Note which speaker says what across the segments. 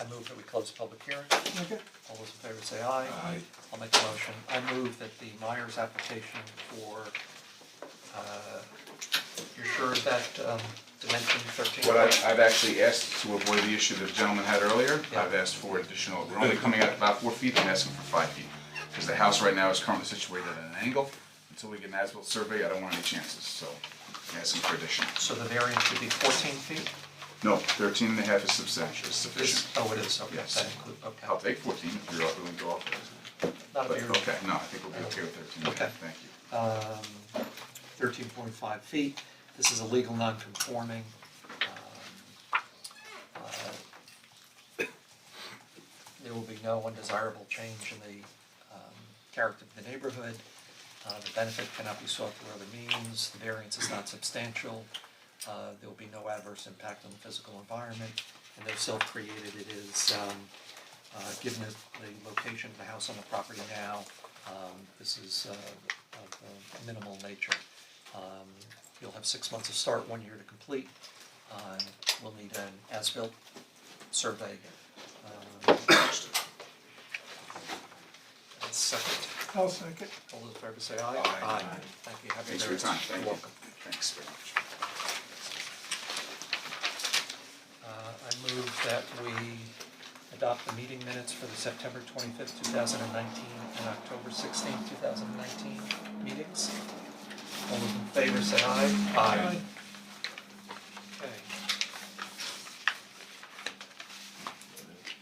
Speaker 1: I move that we close the public hearing.
Speaker 2: Okay.
Speaker 1: All those in favor say aye.
Speaker 3: Aye.
Speaker 1: I'll make a motion. I move that the Myers application for, uh, you're sure of that, um, dimension thirteen?
Speaker 3: What I, I've actually asked to avoid the issue the gentleman had earlier,
Speaker 1: Yeah.
Speaker 3: I've asked for additional, we're only coming out about four feet, I'm asking for five feet. Because the house right now is currently situated at an angle, until we get an as-built survey, I don't want any chances, so I'm asking for addition.
Speaker 1: So the variance would be fourteen feet?
Speaker 3: No, thirteen and a half is substantial, is
Speaker 1: Is,
Speaker 3: sufficient.
Speaker 1: oh, it is, okay,
Speaker 3: Yes.
Speaker 1: that include, okay.
Speaker 3: I'll take fourteen if you're willing to offer it.
Speaker 1: Not a
Speaker 3: But,
Speaker 1: big-
Speaker 3: okay, no, I think we'll be okay with thirteen and a half,
Speaker 1: Okay.
Speaker 3: thank you.
Speaker 1: um, thirteen point five feet. This is a legal non-conforming. um, uh, There will be no undesirable change in the um, character of the neighborhood. Uh, The benefit cannot be sought through other means, the variance is not substantial. Uh, There will be no adverse impact on the physical environment, and though self-created, it is um, uh, given the, the location of the house on the property now, um, this is, uh, of uh, minimal nature. Um, you'll have six months to start, one year to complete, uh, and we'll need an as-built survey. Um, That's second,
Speaker 2: I'll second.
Speaker 1: all those in favor say aye.
Speaker 3: Aye.
Speaker 1: Thank you, happy
Speaker 3: Thanks for your
Speaker 1: variance.
Speaker 3: time, thank you.
Speaker 1: You're welcome.
Speaker 3: Thanks very much.
Speaker 1: Uh, I move that we adopt the meeting minutes for the September twenty-fifth, two thousand and nineteen, and October sixteenth, two thousand and nineteen meetings. All those in favor say aye.
Speaker 2: Aye.
Speaker 1: Okay.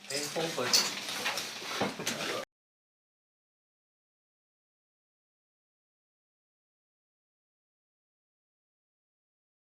Speaker 1: Painful, but